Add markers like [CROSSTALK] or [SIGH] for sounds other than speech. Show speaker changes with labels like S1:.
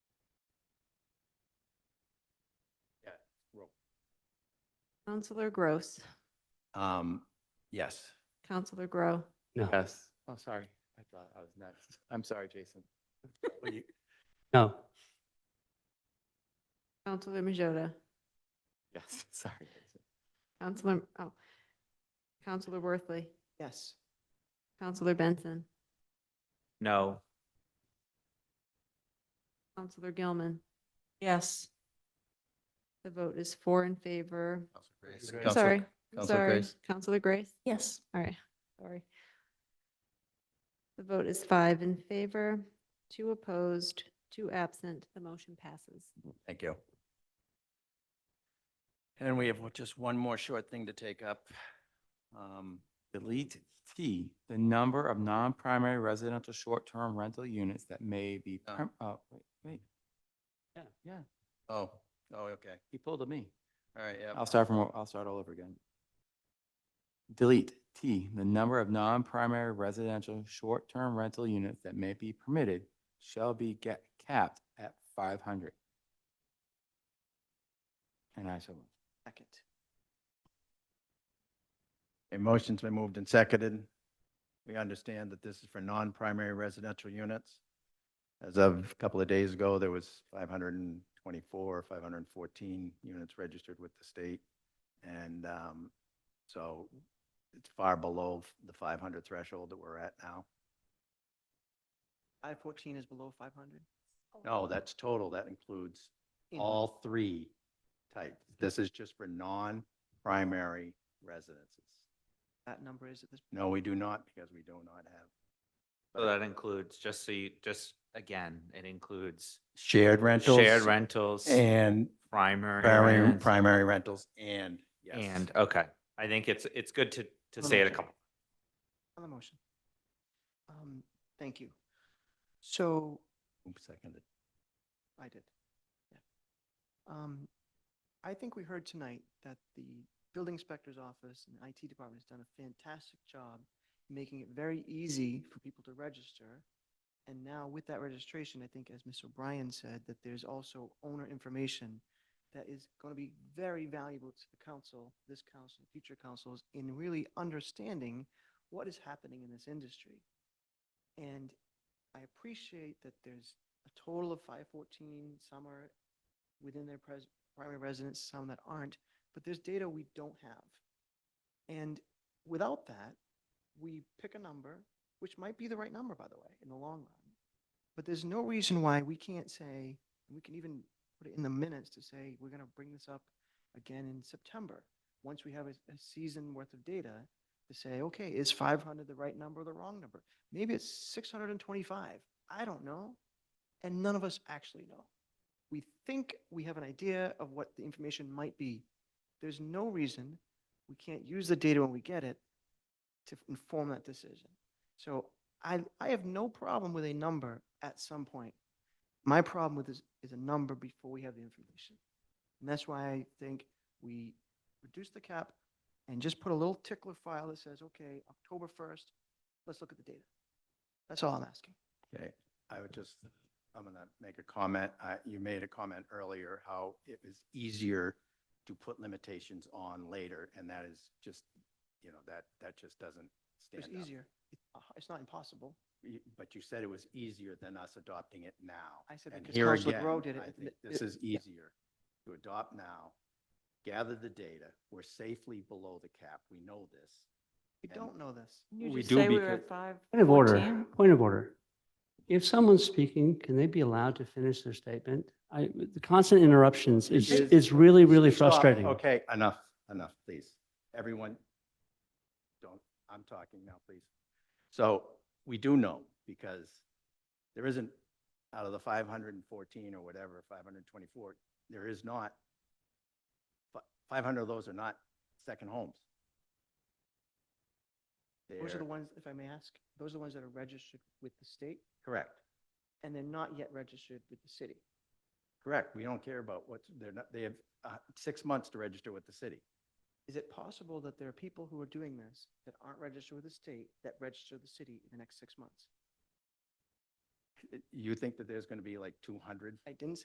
S1: Counselor Gross,
S2: Um, yes.
S1: Counselor Grow,
S3: No,
S4: Yes. Oh, sorry. I thought I was next. I'm sorry, Jason.
S3: no,
S1: Counselor Majota,
S4: [LAUGHS] Yes, sorry. Jason.
S1: Counselor, oh, Counselor Worthley,
S5: Yes.
S1: Counselor Benson,
S4: No.
S1: Counselor Gilman.
S5: Yes.
S1: The vote is four in favor.
S2: Counselor-
S1: Sorry,
S2: Counselor
S1: sorry,
S2: Grace.
S1: Counselor Grace.
S5: Yes.
S1: All right, sorry. The vote is five in favor, two opposed, two absent. The motion passes.
S2: Thank you. And we have just one more short thing to take up. Um,
S4: Delete T, the number of non-primary residential short-term rental units that may be,
S2: Oh.
S4: perm- oh, wait, wait.
S3: Yeah.
S4: Yeah,
S2: Oh, oh, okay.
S4: he pulled a me.
S2: All right, yeah.
S4: I'll start from, I'll start all over again. Delete T, the number of non-primary residential short-term rental units that may be permitted shall be ga- capped at five hundred. And I shall.
S5: Second.
S6: A motion's been moved and seconded. We understand that this is for non-primary residential units. As of a couple of days ago, there was 524, or 514 units registered with the state. And um, so it's far below the 500 threshold that we're at now.
S5: Five fourteen is below five hundred?
S6: No, that's total. That includes all three types. This is just for non-primary residences.
S5: That number is at this.
S6: No, we do not, because we do not have
S7: So that includes, just so you, just again, it includes
S6: shared rentals.
S7: shared rentals,
S6: And
S7: primary
S6: primary,
S7: rents,
S6: primary rentals and, yes.
S7: and, okay. I think it's, it's good to, to say it a
S5: Promotion.
S7: couple.
S5: On the motion. Um, thank you. So
S6: Oops, seconded.
S5: I did. Yeah. Um, I think we heard tonight that the building inspector's office and IT department has done a fantastic job making it very easy for people to register. And now with that registration, I think as Ms. O'Brien said, that there's also owner information that is going to be very valuable to the council, this council, future councils, in really understanding what is happening in this industry. And I appreciate that there's a total of five fourteen, some are within their pres- primary residence, some that aren't, but there's data we don't have. And without that, we pick a number, which might be the right number, by the way, in the long run. But there's no reason why we can't say, we can even put it in the minutes to say, we're gonna bring this up again in September, once we have a, a season worth of data to say, okay, is five hundred the right number or the wrong number? Maybe it's six hundred and twenty-five. I don't know and none of us actually know. We think we have an idea of what the information might be. There's no reason we can't use the data when we get it to inform that decision. So I, I have no problem with a number at some point. My problem with this is a number before we have the information. And that's why I think we reduce the cap and just put a little tickler file that says, okay, October 1st, let's look at the data. That's all I'm asking.
S6: Okay, I would just, I'm gonna make a comment. Uh, you made a comment earlier how it was easier to put limitations on later, and that is just, you know, that, that just doesn't stand
S5: It's
S6: up.
S5: easier. It- uh, It's not impossible.
S6: You- But you said it was easier than us adopting it now.
S5: I said
S6: And
S5: because
S6: here
S5: Counselor
S6: again,
S5: Grow did it
S6: I
S5: at the-
S6: think
S5: it-
S6: This is
S5: yeah.
S6: easier to adopt now, gather the data. We're safely below the cap. We know this.
S5: We
S6: And-
S5: don't know this.
S6: We do because,
S3: point of order, point of order. If someone's speaking, can they be allowed to finish their statement? I, the constant interruptions is,
S6: Yes.
S3: is really, really
S6: Stop.
S3: frustrating.
S6: Okay, enough, enough, please. Everyone, don't, I'm talking now, please. So we do know because there isn't, out of the 514 or whatever, 524, there is not, fi- 500 of those are not second homes.
S5: Those are the
S6: They're,
S5: ones, if I may ask, those are the ones that are registered with the state
S6: correct,
S5: and they're not yet registered with the city.
S6: correct. We don't care about what's, they're not, they have uh, six months to register with the city.
S5: Is it possible that there are people who are doing this that aren't registered with the state that register the city in the next six months?
S6: You think that there's going to be like 200?
S5: I didn't say